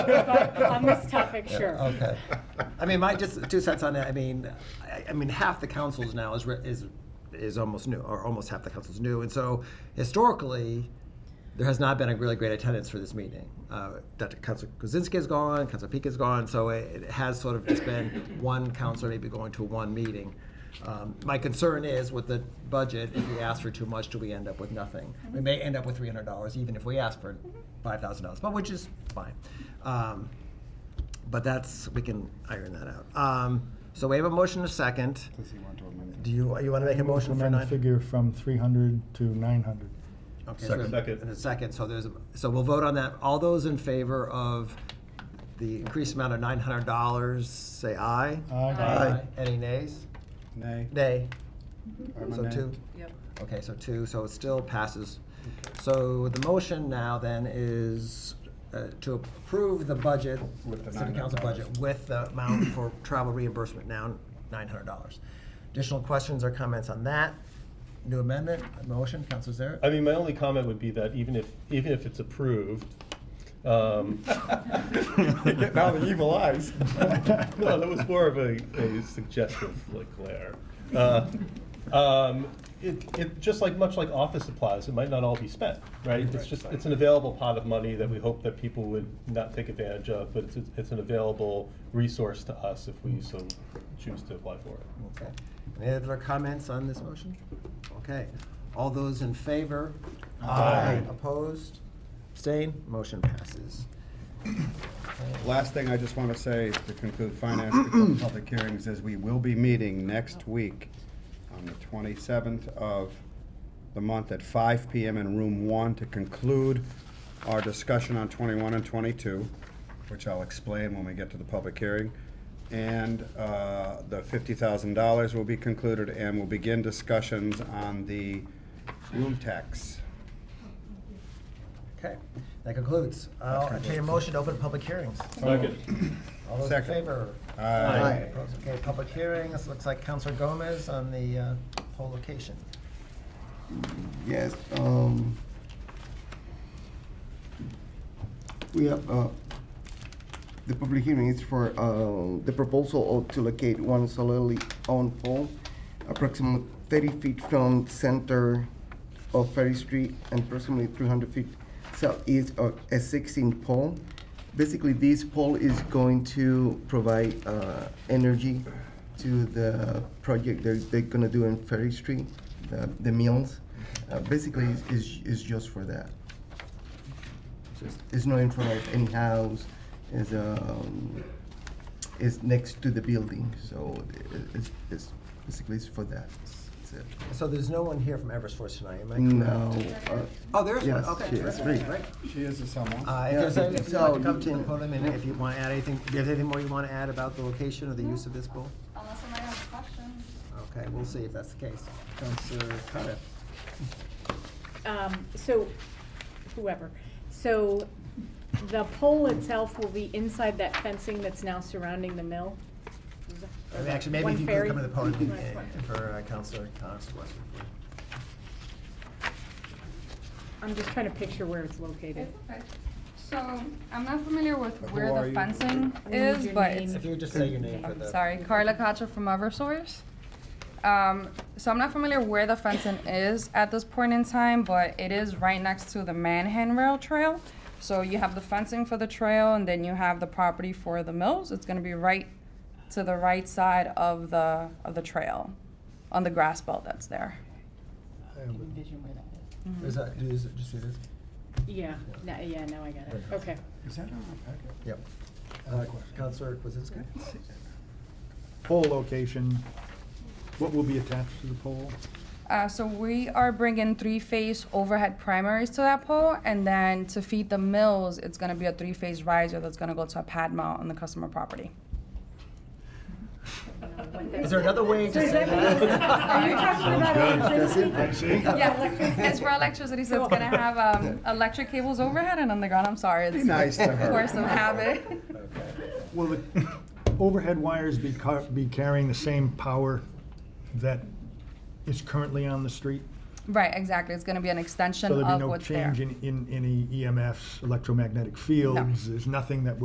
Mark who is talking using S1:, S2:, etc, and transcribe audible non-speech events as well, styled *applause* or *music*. S1: On this topic, sure.
S2: Okay. I mean, my, just two cents on that, I mean, I, I mean, half the councils now is, re- is, is almost new, or almost half the council's new, and so historically, there has not been a really great attendance for this meeting. Uh, Dr. Council Kuzinski is gone, Council Peak is gone, so it, it has sort of just been *laughs* one council maybe going to one meeting. Um, my concern is with the budget, if we ask for too much, do we end up with nothing? We may end up with three hundred dollars, even if we ask for five thousand dollars, but which is fine. Um, but that's, we can iron that out. Um, so we have a motion, a second.
S3: Does he want to amend it?
S2: Do you, you wanna make a motion for
S4: Recommend
S2: nine?
S4: figure from three hundred to nine hundred.
S2: Okay, so we have-
S5: Second.
S2: In a second, so there's, a- so we'll vote on that. All those in favor of the increased amount of nine hundred dollars, say aye.
S4: Aye. Aye.
S2: Any nays?
S3: Nay.
S2: Nay.
S3: I'm a
S2: So
S3: nay.
S2: two?
S1: Yep.
S2: Okay, so two, so it still passes. So the motion now then is uh, to approve the budget,
S3: With the
S2: city council
S3: $900.
S2: budget, with the amount for travel reimbursement now, nine hundred dollars. Additional questions or comments on that? New amendment, motion, Counselor Zaret?
S5: I mean, my only comment would be that even if, even if it's approved,
S3: *laughs*
S5: um.
S3: You're getting all the evil eyes.
S5: *laughs* No, that was more of a, a suggestive like glare. Uh, um, it, it, just like, much like office supplies, it might not all be spent, right? It's just, it's an available pot of money that we hope that people would not take advantage of, but it's, it's an available resource to us if we so choose to apply for it.
S2: Okay. Any other comments on this motion? Okay. All those in favor?
S3: Aye.
S2: Opposed? Abstain? Motion passes.
S3: Last thing I just want to say to conclude finance before public hearings is we will be meeting next week on the 27th of the month at 5 PM in room one to conclude our discussion on 21 and 22, which I'll explain when we get to the public hearing. And uh, the $50,000 will be concluded and we'll begin discussions on the room tax.
S2: Okay. That concludes. I'll entertain a motion to open public hearings. All those in
S3: Second.
S2: favor?
S3: Aye.
S2: Opposed? Okay, public hearings. Looks like Counselor Gomez on the uh, whole location.
S6: Yes, um, we have, uh, the public hearing is for, uh, the proposal of- to locate one solely owned pole approximately thirty feet from center of Ferry Street and approximately three hundred feet southeast of a sixteen pole. Basically, this pole is going to provide, uh, energy to the project they're, they're gonna do in Ferry Street, the, the mills. Uh, basically, is- is, is just for that. It's not in front of any house, it's, um, it's next to the building, so it- it's, it's, basically it's for that. That's it.
S2: So there's no one here from Eversource tonight, am I correct?
S6: Now, uh,
S2: Mm. Oh, there is one.
S6: Yes,
S2: Okay.
S6: she is
S2: terrific,
S6: free.
S2: Right.
S3: She is a someone.
S2: Uh, If there's
S6: Yeah,
S2: any, if you'd
S6: so
S2: like to
S6: you
S2: come to the
S6: can-
S2: podium and if you want to add anything, if there's anything more you want to add about the location or the use of this pool?
S7: Unless somebody has a question.
S2: Okay, we'll see if that's the case. Counselor Coniff?
S1: Um, so, whoever, so the pole itself will be inside that fencing that's now surrounding the mill?
S2: I mean, Actually, maybe
S1: One
S2: if you could
S1: ferry.
S2: come to the podium
S1: One
S2: and-
S1: ferry.
S2: and for uh, Counselor Coniff's question.
S1: I'm just trying to picture where it's located.
S7: It's okay. So, I'm not familiar with
S3: Who
S7: where
S3: are
S7: the
S3: you?
S7: fencing
S1: We need
S7: is,
S1: your
S7: but
S1: name.
S7: it's,
S2: If you would just say your name for
S7: I'm
S2: the.
S7: sorry, Carla Cacho from Eversource. Um, so I'm not familiar where the fencing is at this point in time, but it is right next to the Manhan Rail Trail. So you have the fencing for the trail, and then you have the property for the mills. It's gonna be right to the right side of the, of the trail, on the grass belt that's there.
S2: Is that, do you do you see this?
S1: Yeah, now, yeah, now I got it, okay.
S3: Is that on our packet?
S2: Yep.
S3: have a
S2: Uh,
S3: question.
S2: Counselor Kwasinski?
S4: Pole location, what will be attached to the pole?
S7: Uh, so we are bringing three-phase overhead primaries to that pole, and then to feed the mills, it's gonna be a three-phase riser that's gonna go to a pad mount on the customer property.
S2: Is there another way to say
S1: *laughs* Are you
S2: that?
S1: talking about electricity?
S7: Yeah, it's for electricity, so it's gonna have, um, electric cables overhead and underground, I'm sorry,
S3: Be
S7: it's
S3: nice to
S7: a
S3: her.
S7: force of habit.
S4: Will the overhead wires be car, be carrying the same power that is currently on the street?
S7: Right, exactly, it's gonna be an extension
S4: So there'd be
S7: of
S4: no
S7: what's there.
S4: E change in, in any EMFs, electromagnetic fields? There's nothing that